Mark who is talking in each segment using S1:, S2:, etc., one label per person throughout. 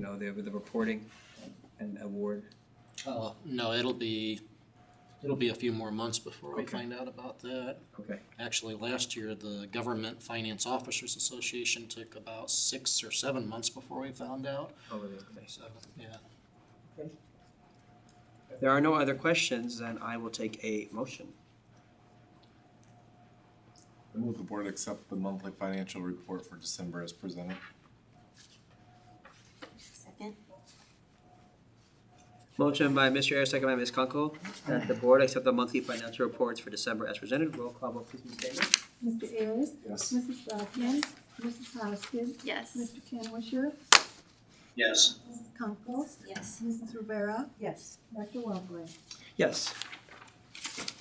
S1: know, the, the reporting and award?
S2: Uh, no, it'll be, it'll be a few more months before we
S1: Okay.
S2: find out about that.
S1: Okay,
S2: Actually, last year, the Government Finance Officers Association took about six or seven months before we found out.
S1: over the, okay.
S2: So, yeah,
S1: If there are no other questions, then I will take a motion.
S3: I move the board accept the monthly financial report for December as presented.
S4: Second?
S1: Motion by Mr. Ayers, second by Ms. Kunkel, that the board accept the monthly financial reports for December as presented. Roll call vote, please, Ms. Davis.
S5: Mr. Ayers?
S3: Yes.
S5: Mrs. Blackman? Mrs. Hoskins?
S4: Yes.
S5: Mr. Kenwisher?
S6: yes,
S5: Mrs. Conkle?
S4: Yes.
S5: Mrs. Rivera?
S4: Yes.
S5: Dr. Wellbley?
S1: Yes.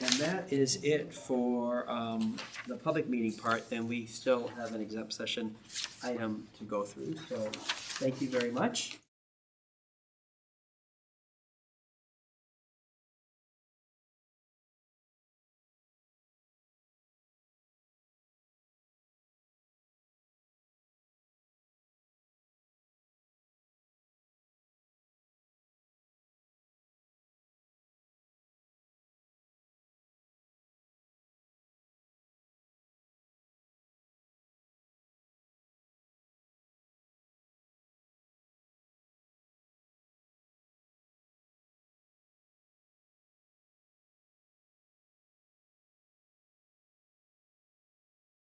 S1: And that is it for um the public meeting part, then we still have an exempt session item to go through, so thank you very much.